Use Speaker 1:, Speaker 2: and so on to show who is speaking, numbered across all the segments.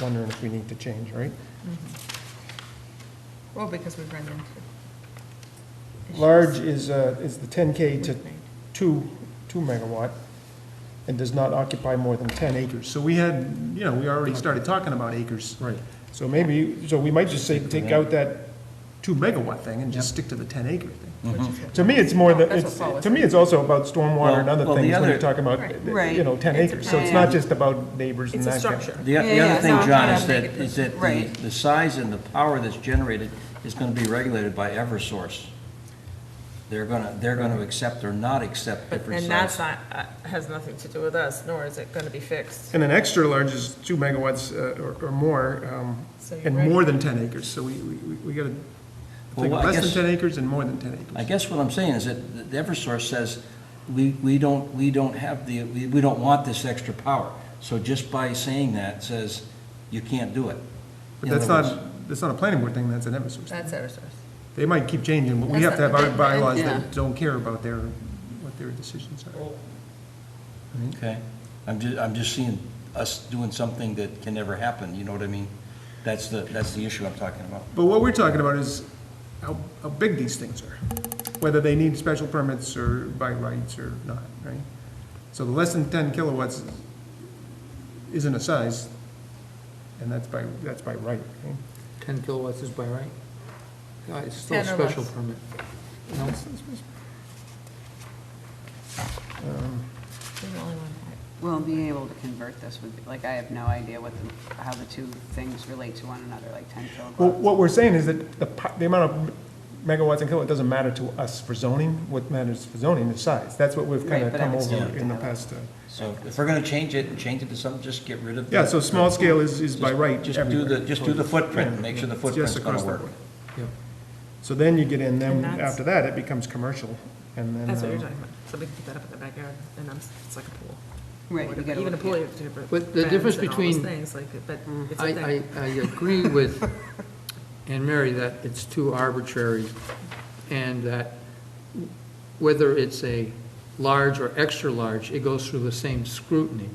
Speaker 1: wondering if we need to change, right?
Speaker 2: Well, because we've run into. issues
Speaker 1: Large is, uh, is the 10K to
Speaker 2: with me.
Speaker 1: two, two megawatt, and does not occupy more than 10 acres. So we had, you know, we already started talking about acres.
Speaker 3: Right.
Speaker 1: So maybe, so we might just say, take out that two megawatt thing and just
Speaker 3: Yep.
Speaker 1: stick to the 10 acre thing.
Speaker 2: Which
Speaker 3: Mm-hmm.
Speaker 2: is what-
Speaker 1: To me, it's more the,
Speaker 2: That's what
Speaker 1: it's,
Speaker 2: Paul was
Speaker 1: to me, it's also about stormwater and
Speaker 3: Well,
Speaker 1: other
Speaker 3: well, the
Speaker 1: things when
Speaker 3: other-
Speaker 1: you're talking about,
Speaker 4: Right.
Speaker 1: you know, 10
Speaker 2: It's a
Speaker 1: acres. So it's not
Speaker 4: plan.
Speaker 1: just about neighbors and
Speaker 2: It's a
Speaker 1: that kind of-
Speaker 2: structure.
Speaker 3: The o- the
Speaker 4: Yeah,
Speaker 3: other
Speaker 4: yeah,
Speaker 3: thing,
Speaker 2: no,
Speaker 3: John,
Speaker 2: yeah, make
Speaker 3: is that,
Speaker 2: it
Speaker 3: is that the,
Speaker 4: Right.
Speaker 3: the size and the power that's generated is gonna be regulated by Eversource. Saying They're gonna, they're gonna accept or not accept
Speaker 5: But,
Speaker 3: different
Speaker 5: and that's
Speaker 3: sizes.
Speaker 5: not, uh, has nothing to do with us, nor is it going to be fixed.
Speaker 1: And an extra large is two megawatts uh, or, or more, um,
Speaker 2: So you're
Speaker 1: and
Speaker 2: right.
Speaker 1: more than 10 acres, so we, we, we- we gotta think
Speaker 3: Well, I
Speaker 1: less
Speaker 3: guess-
Speaker 1: than 10 acres and more than 10 acres.
Speaker 3: I guess what I'm saying is that the Eversource says, we, we don't, we don't have the, we, we don't want this extra power. So just by saying that says, you can't do it.
Speaker 1: But
Speaker 3: In
Speaker 1: that's
Speaker 3: other
Speaker 1: not,
Speaker 3: words-
Speaker 1: that's not a planning board thing, that's an Eversource. thing.
Speaker 2: That's Eversource.
Speaker 1: They might keep changing, but we have
Speaker 2: That's
Speaker 1: to have our
Speaker 2: not-
Speaker 1: bylaws
Speaker 4: yeah.
Speaker 1: that don't care about their, what their decisions are.
Speaker 3: Okay, I'm ju, I'm just seeing us doing something that can never happen, you know what I mean? That's the, that's the issue I'm talking about.
Speaker 1: But what we're talking about is how, how big these things are, whether they need special permits or by rights or not, right? So the less than 10 kilowatts isn't a size, and that's by, that's by right, right?
Speaker 6: 10 kilowatts is by right? Yeah, It's still a
Speaker 2: 10 or
Speaker 6: special
Speaker 2: less.
Speaker 6: permit. No?
Speaker 2: You're the only one.
Speaker 4: Well, being able to convert this would, be like, I have no idea what the, how the two things relate to one another, like 10
Speaker 1: Well,
Speaker 4: kilowatts.
Speaker 1: what we're saying is that the, po- the amount of megawatts and kilowatt doesn't matter to us for zoning. What matters for zoning is size. That's what we've kind
Speaker 4: Right,
Speaker 1: of
Speaker 4: but I
Speaker 1: come
Speaker 4: would still
Speaker 1: over
Speaker 4: have to
Speaker 1: in the
Speaker 4: have it.
Speaker 1: past. uh,
Speaker 3: So if we're gonna change it and change it to something, just get rid of. the-
Speaker 1: Yeah, so small scale is, is by
Speaker 3: Just-
Speaker 1: right
Speaker 3: Just do the,
Speaker 1: everywhere.
Speaker 3: just do the footprint, make sure the
Speaker 1: It's just
Speaker 3: footprint's
Speaker 1: across
Speaker 3: gonna
Speaker 1: the board.
Speaker 3: work.
Speaker 6: Yeah.
Speaker 1: So then you get in, then
Speaker 5: And that's-
Speaker 1: after that, it becomes commercial, and then.
Speaker 5: That's what you're
Speaker 1: uh,
Speaker 5: talking about. So we can put that up in the backyard, and I'm, it's like a pool.
Speaker 4: Right,
Speaker 5: Or
Speaker 4: you gotta
Speaker 5: Even a
Speaker 4: look
Speaker 5: pool,
Speaker 4: at-
Speaker 5: you have to have.
Speaker 6: But the
Speaker 5: fence
Speaker 6: difference
Speaker 5: and all those
Speaker 6: between- Mm.
Speaker 5: Things like, but it's a
Speaker 6: I, I,
Speaker 5: thing.
Speaker 6: I agree with Anne Mary that it's too arbitrary and that whether it's a large or extra-large, it goes through the same scrutiny.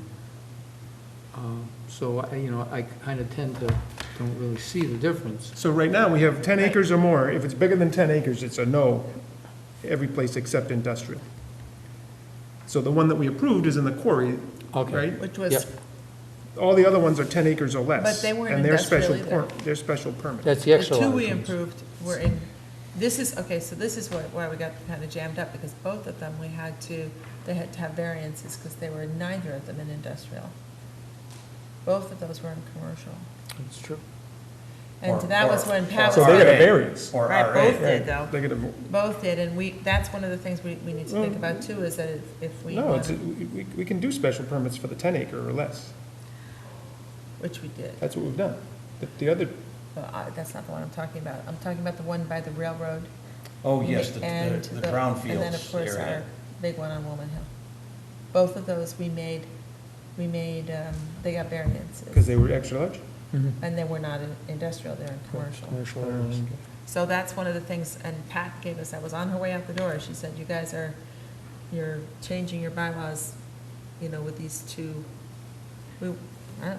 Speaker 6: Um, So, I, you know, I kind of tend to, don't really see the difference.
Speaker 1: So right now, we have ten acres or more. If it's bigger than ten acres, it's a no, every place except industrial. So the one that we approved is in the quarry,
Speaker 6: Okay.
Speaker 1: right?
Speaker 2: Which
Speaker 6: Yep,
Speaker 2: was,
Speaker 1: All the other ones are 10 acres or less.
Speaker 2: But they weren't
Speaker 1: and they're special
Speaker 2: industrial
Speaker 1: per- They're special permit.
Speaker 6: That's the
Speaker 2: the
Speaker 6: extra-large.
Speaker 2: two we
Speaker 6: ones.
Speaker 2: improved were in, this is, okay, so this is why, why we got kind of jammed up, because both of them, we had to, they had to have variances, because they were neither of them in industrial. Both of those were in commercial.
Speaker 6: That's true.
Speaker 2: And
Speaker 3: Or-
Speaker 2: that was
Speaker 3: or-
Speaker 2: when Pat was.
Speaker 1: So they got a
Speaker 2: talking-
Speaker 1: variance.
Speaker 3: Or
Speaker 2: Right,
Speaker 3: RA.
Speaker 2: both did though.
Speaker 1: They got a,
Speaker 2: Both did, and we, that's one of the things we, we need to think about too, is that if- if we
Speaker 1: no, it's,
Speaker 2: wanted,
Speaker 1: we, we- we can do special permits for the 10 acre or less.
Speaker 2: which we did.
Speaker 1: That's what we've done. The- The other,
Speaker 2: But I- that's not the one I'm talking about. I'm talking about the one by the railroad.
Speaker 3: Oh, yes, the,
Speaker 2: and
Speaker 3: the- the brownfields
Speaker 2: And then, of course, our
Speaker 3: area.
Speaker 2: big one on Woolman Hill. Both of those we made, we made, um, they got
Speaker 1: because
Speaker 2: variances.
Speaker 1: they were extra large?
Speaker 2: And they were not in industrial, they're in commercial.
Speaker 6: Commercial areas.
Speaker 1: Um,
Speaker 2: So that's one of the things, and Pat gave us, I was on her way out the door, she said, you guys are, you're changing your bylaws, you know, with these two, we, I don't know,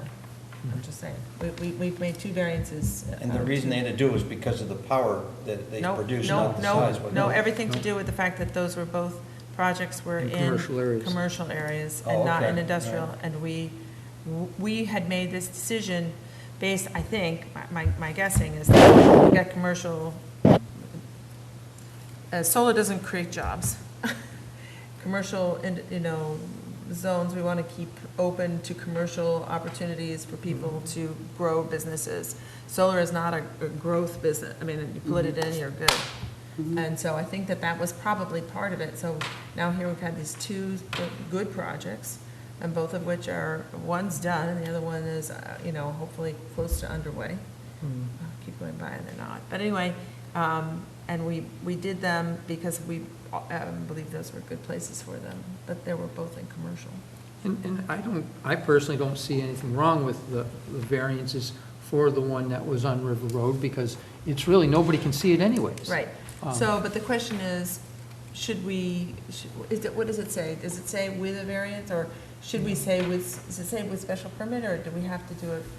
Speaker 2: I'm just saying, we, we, we've made two variances. uh,
Speaker 3: Mm-hmm. And the reason they had to do is because of the power that they
Speaker 2: No,
Speaker 3: produce,
Speaker 2: no,
Speaker 3: not the
Speaker 2: no,
Speaker 3: size.
Speaker 2: No, everything to do with the fact that those were both, projects were
Speaker 6: In
Speaker 2: in.
Speaker 6: commercial areas.
Speaker 2: commercial areas
Speaker 3: Oh,
Speaker 2: and not
Speaker 3: okay.
Speaker 2: in industrial, and we, we had made this decision based, I think, my, my guessing is that we got commercial, uh, solar doesn't create jobs. Commercial, and, you know, zones, we want to keep open to commercial opportunities for people
Speaker 3: Mm-hmm.
Speaker 2: to grow businesses. Solar is not a a growth business, I mean, you put it
Speaker 3: Mm-hmm.
Speaker 2: in, you're good. And so I think that that was probably part of it. So now here we've had these two good projects, and both of which are, one's done, and the other one is, uh, you know, hopefully close to underway. I Keep going by and they're not. But anyway, um, and we, we did them because we um, believe those were good places for them, but they were both in commercial.
Speaker 6: And, and I don't, I personally don't see anything wrong with the the variances for the one that was on River Road, because it's really, nobody can see it anyways.
Speaker 2: Right.
Speaker 6: Um,
Speaker 2: So, but the question is, should we, should- is it, what does it say? Does it say with a variance, or should we say with, does it say with special permit, or do we have to do it